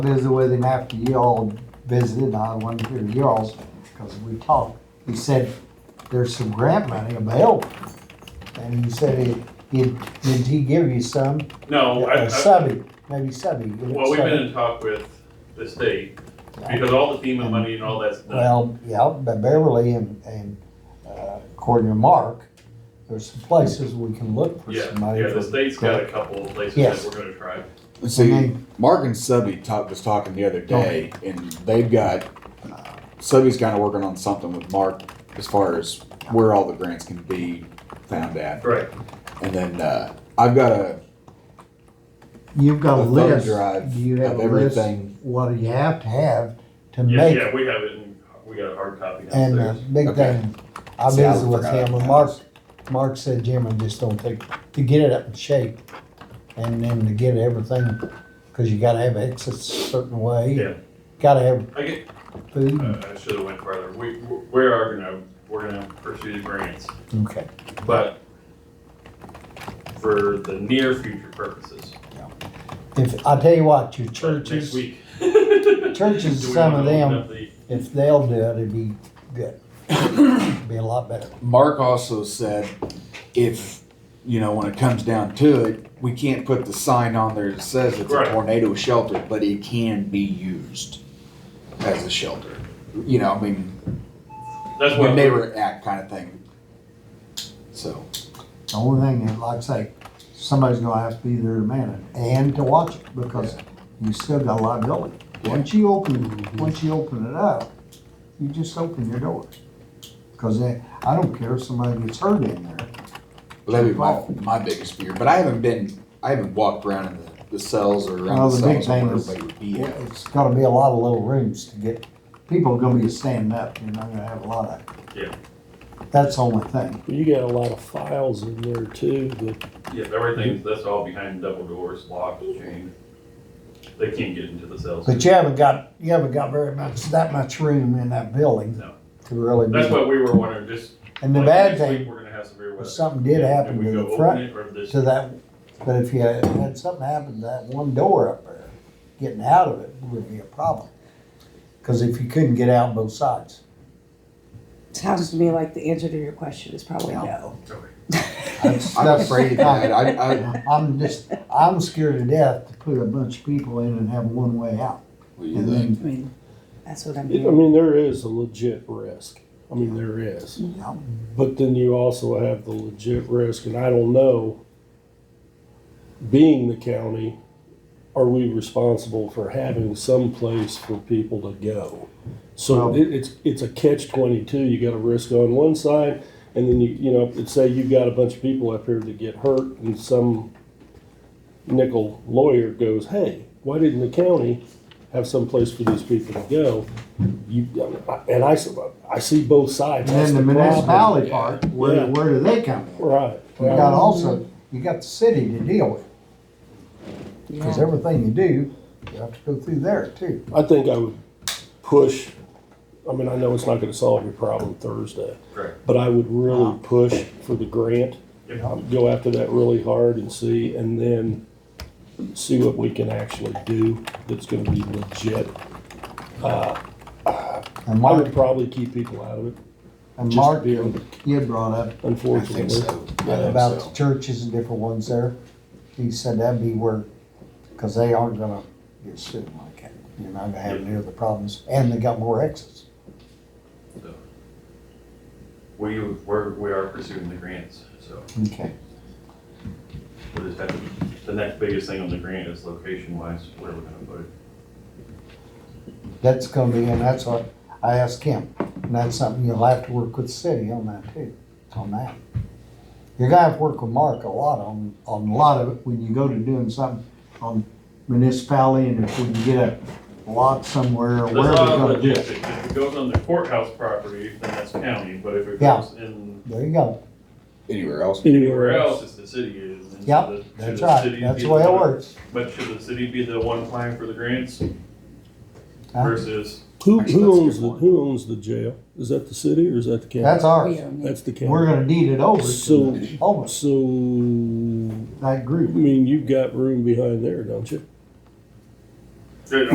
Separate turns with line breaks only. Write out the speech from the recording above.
visit with him after y'all visited, I wanted to hear y'all's, because we talked. He said, there's some grant money available. And he said, he- he, did he give you some?
No, Oh, I,
Uh,
I,
Subby, maybe subby.
well, we've been in talk with the state, because all the FEMA money and all that's done.
Well, yeah, but Beverly and, and uh, according to Mark, there's some places we can look for
Yeah,
some money.
yeah, the
for-
state's got a couple of places
Yes.
that we're gonna try.
Okay.
See, Mark and Subby talk, was talking the other day, and they've got, uh, Subby's kind of working on something with Mark as far as where all the grants can be found at.
Right,
And then, uh, I've got a,
You've got a
a thumb
list,
drive
do you have
of
a list,
everything.
what do you have to have to
yeah,
make
yeah, we have it, in we got a hard copy
And uh, the
downstairs.
big
Okay.
thing, I
See, I
visited with
forgot
him, and
about
Mark,
that.
Mark said, Jim, I just don't think, to get it up in shape, and then to get everything, cause you gotta have exits a certain way.
Yeah.
Gotta have
I get,
food,
uh, I should've went farther, we, we are gonna, we're gonna pursue the grants,
okay,
but for the near future purposes.
if, I tell you what, your
But Next
churches,
week.
churches,
Do we
some
wanna
of
open
them-
up the-
if they'll do it, it'd be good, be a lot better.
Mark also said, if, you know, when it comes down to it, we can't put the sign on there that says it's a
Right.
tornado shelter, but it can be used as a shelter. You know, I mean,
That's what.
when they were at kind of thing. So,
The only thing, is, like I say, somebody's gonna have to be there to man it and to watch it because you still got a lot going. Once you open, once you open it up, you just open your doors. Cause they- I don't care if somebody gets hurt in there.
well, that'd be my, my biggest fear, but I haven't been, I haven't walked around in the, the cells or
Well,
around the
the big
cells where
thing is-
everybody would be at.
It's gotta be a lot of little rooms to get, people are gonna be standing up, you're not gonna have a lot of.
Yeah.
That's the only thing.
You got a lot of files in there too, that
Yeah, everything, that's all behind double doors, locked, chained. They can't get into the cells.
But you haven't got, you haven't got very much, that much room in that building.
No.
To really
That's
do it.
what we were wondering, just.
And the
like,
bad
next
thing,
week We're gonna have severe
if
weather.
something did
Do
happen
we
to
go
the
open
front,
it or this?
to that, but if you had had something happen to that one door up there, getting out of it would be a problem. Cause if you couldn't get out both sides,
Sounds to me like the answer to your question is probably
Yeah.
no.
Okay.
that's,
I'm
that's-
afraid of that. I, I,
I'm just, I'm scared to death to put a bunch of people in and have one way out.
what do you
And
think?
I
then,
mean, that's what I'm
I
hearing.
mean, there is a legit risk. I mean, there is.
Yeah.
But then you also have the legit risk, and I don't know, being the county, are we responsible for having some place for people to go? So
Well-
it, it's, it's a catch twenty-two. You got a risk on one side, and then you, you know, let's say you've got a bunch of people up here that get hurt and some nickel lawyer goes, hey, why didn't the county have some place for these people to go? You, and I, I see both
and
sides. That's
then the
the problem.
municipality part, where,
Yeah.
where do they come in?
Right.
You got also, you got the city to deal with, cause
Yeah.
everything you do, you have to go through there too.
I think I would push, I mean, I know it's not gonna solve your problem Thursday,
Correct.
but I would really push for the grant.
Yep.
Um, Go after that really hard and see, and then see what we can actually do that's gonna be legit.
And
I
Mark,
would probably keep people out of it,
and
just
Mark,
be-
you had brought up
I think
unfortunately.
so. I think
about
so.
the churches and different ones there. He said that'd be where, because they aren't gonna get sued like that. You're not gonna have any of the problems, and they got more exits.
We, we're, we are pursuing the grants, so
Okay.
we'll just have to, the next biggest thing on the grant is location wise, where we're gonna put it.
That's gonna be, and that's what I asked him, and that's something you'll have to work with the city on that too, on that. You're gonna have to work with Mark a lot on, on a lot of it when you go to doing something on municipality, and if we can get a lot somewhere,
There's
or
a
wherever.
lot of
gonna do it.
logistics. If it goes on the courthouse property, then that's county, but if it
Yeah.
goes in
There you go.
Anywhere else?
anywhere else, it's the city is. and should the-
Yep,
should
that's
the
right.
city
That's
be
the way it
one-
works.
But should the city be the one applying for the grants
Huh?
versus,
Who,
Actually, that's a
who owns,
good
the
one.
who owns the jail? Is that the city or is that the county?
That's ours.
We don't need-
That's the county.
We're gonna deed it over
So-
to almost
So, I
that group.
mean, you've got room behind there, don't you?